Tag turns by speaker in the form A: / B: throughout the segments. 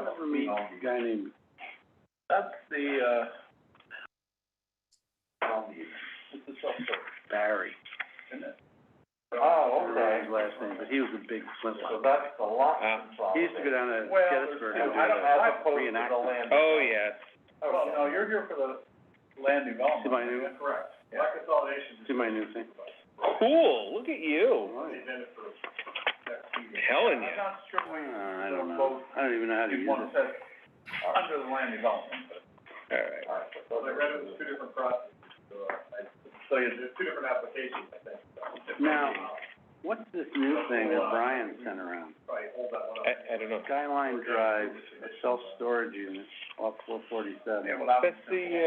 A: ever meet a guy named,
B: That's the, uh, it's the truck
A: Barry,
B: isn't it? Oh,
A: I don't remember his last name, but he Um, was a big flintlock.
B: that's the lot
A: He used to go down to
B: Well,
A: Gettysburg and
B: there's-
A: do
B: I don't- I
A: the
B: opposed to the
A: reenactment.
C: Oh, yes.
B: Well, Oh, no, you're here for the land development.
A: See my new,
B: Correct. Yeah. Consolidation.
A: see my new thing?
C: Cool, look at you.
A: Oh,
C: Telling
B: I'm
C: you.
B: not sure we,
A: I don't know, I don't even know how to
B: you
A: use
B: want
A: it.
B: to say, under the land development, but.
C: All right.
B: So I read it was two different processes, so, I, so yeah, there's two different applications, I think.
A: Now- What's this new thing that Brian sent around?
B: Probably hold that one up.
C: I, I don't know.
A: Skyline Drive, a self-storage unit off four forty-seven.
B: Yeah, well, I was-
C: That's the, uh,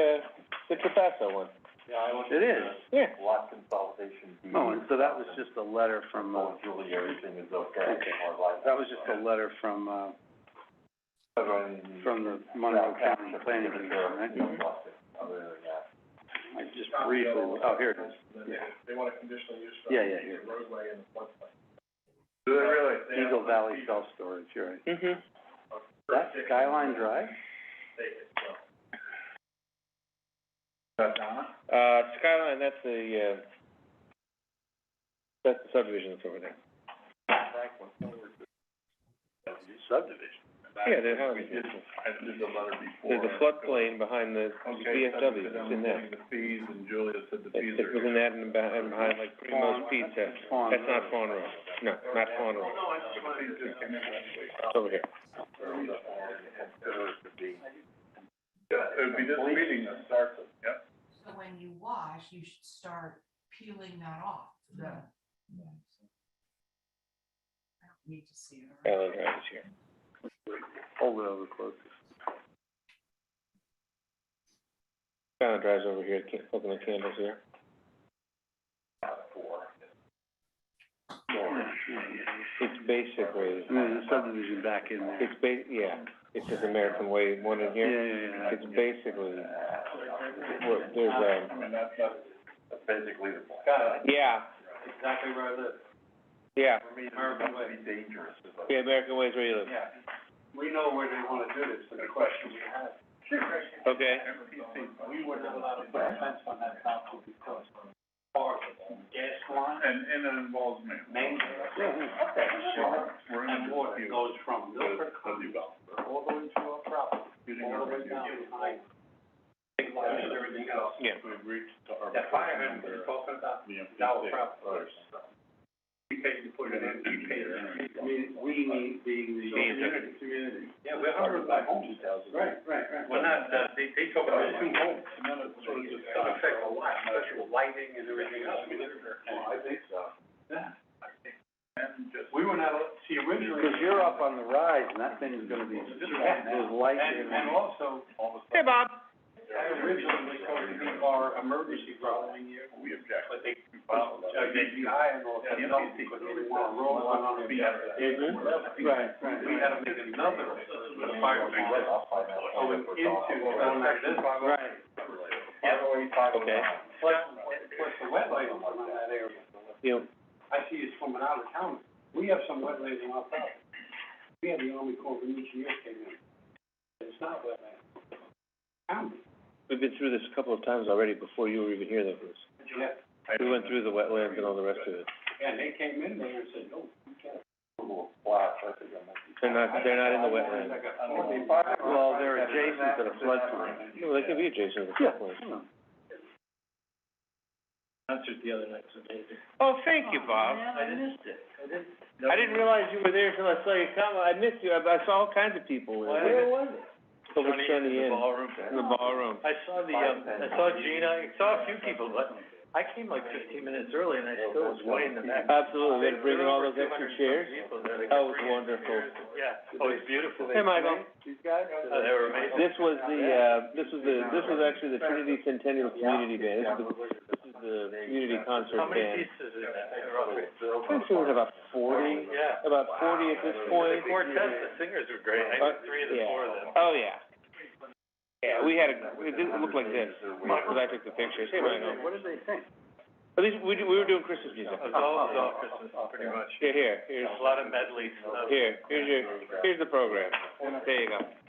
C: the Trapasso one.
A: It is,
C: Yeah.
D: Lot consolidation. deed.
A: oh, and so that was just a letter from, uh,
D: Oh, Julie, everything is okay.
A: Okay.
D: Our life-
A: that was just a letter from, uh,
D: Everything-
A: from the Monroe
D: Yeah,
A: County
D: that's
A: Planning
D: taken
A: Commission,
D: care of.
A: right?
D: You don't want it, other than that.
A: I just briefly, oh, here it is, yeah.
B: They want a conditional use for.
A: Yeah, yeah, here.
B: Roadway and floodplain. Do they really?
A: Eagle Valley Self-Storage, you're right.
C: Mm-hmm.
A: That's Skyline Drive?
B: That's not.
C: Uh, Skyline, that's the, uh, that's the subdivision that's over there.
A: Subdivision.
C: Yeah, there's houses.
B: I did the letter before.
C: There's a floodplain behind the
B: Okay, so
C: VFW, it's in there.
B: The fees, and Julia said the fees
C: It's, it's
B: are.
C: within that and behind, and behind like Primo's
A: Fawn.
C: Pizza.
A: That's Fawn
C: That's not
A: Road.
C: Fawn Road. No, not Fawn Road.
B: Oh, no, I just wanted to. It
C: It's over here.
B: would be this meeting that starts it, yep.
E: So when you wash, you should start peeling that off, the. I don't need to see it.
C: Skyline
E: right?
C: Drive is here.
A: Hold it over close.
C: Skyline Drive's over here, can't, open the candles here. It's basically,
A: And there's a subdivision back in there.
C: it's ba- yeah, it's just American Way, one in
A: Yeah,
C: here.
A: yeah, yeah.
C: It's basically, um, what- there's,
B: I
C: um,
B: mean, that's, that's.
D: That's basically the point.
C: yeah,
B: Exactly where I live.
C: yeah,
D: For me, it's
B: American
D: gonna be dangerous if I-
C: yeah, American Way is where you live.
B: Yeah, we know where they wanna do this, so the question we have.
C: Okay.
B: We were not allowed to put a fence on that property because of part of the gas line. And, and it involves main. Main. We're in a water goes from Milford Commons all the way to our property, all the way down behind. Everything else.
C: Yeah.
B: We've reached to our. That fire hydrant we're talking about, now we're property. We paid to put it in, we paid it in. I mean, we need being the. Community, community. Yeah, we're hundred by homes. Right, right, right. Well, not, uh, they, they talk about two homes. Sort of just affect a lot, special lighting and everything else. Oh, I think so. Yeah. And just. We were not, see, originally.
A: Because you're up on the rise and that thing's gonna be, there's light
B: And, and
A: there.
B: also,
C: Hey, Bob.
B: that originally was supposed to be our emergency following year. We object. But they, uh, they high and all that, you know, because they didn't want to roll one on the.
A: Right, right,
B: Mm-hmm. We
A: right.
B: had to make another, uh, fire brigade going into around like this.
A: Right.
C: Okay.
B: Plus, plus the wetlands around that area.
C: You,
B: I see it's swimming out of town. We have some wetlands in our property. We had the Army Corps of Engineers came in. It's not wetland. County.
C: we've been through this a couple of times already before you were even here, though, Bruce.
B: Yeah,
C: We went through the wetlands and all the rest of it.
B: and they came in there and said, no, we can't.
D: Little flash, I think I might be-
C: They're not, they're not in the wetlands.
A: Well, they're adjacent to the floodplain.
C: No, they could be adjacent to the floodplain.
A: Yeah.
B: Answered the other night, so they.
C: Oh, thank you, Bob.
B: I missed it. I didn't.
C: I didn't realize you were there until I saw your comment. I missed you. I, I saw all kinds of people. in there.
B: was it?
C: Over Sunny Inn,
B: ballroom.
C: in the ballroom.
B: I saw the, um, I saw Gina, I saw a few people, but I came like fifteen minutes early and I still was way in the back.
C: Absolutely. They're bringing all those
B: There were
C: extra
B: 200
C: chairs.
B: people there. They
C: That was
B: bring in
C: wonderful.
B: chairs. Yeah, oh, it's beautiful.
C: Hey, Michael.
A: These guys?
B: Oh, they were amazing.
C: This was the, uh, this was the, this was actually the Trinity Centennial Community Band. This is the, this is the community concert
B: How many
C: band.
B: pieces is that?
C: I think there was about forty,
B: Yeah.
C: about forty at this
B: The
C: point.
B: quartet, the singers were great. I
C: Uh,
B: did three of the
C: yeah.
B: four of them.
C: Oh, yeah. Yeah, we had, a- it didn't look like this, because I took the pictures. Hey, Michael.
A: What did they think?
C: At least, we, do- we were doing Christmas music.
B: It was all, it was all Christmas, pretty much.
C: Here, here, here's,
B: A lot of medleys, so that was-
C: here, here's your, here's the program. There you go.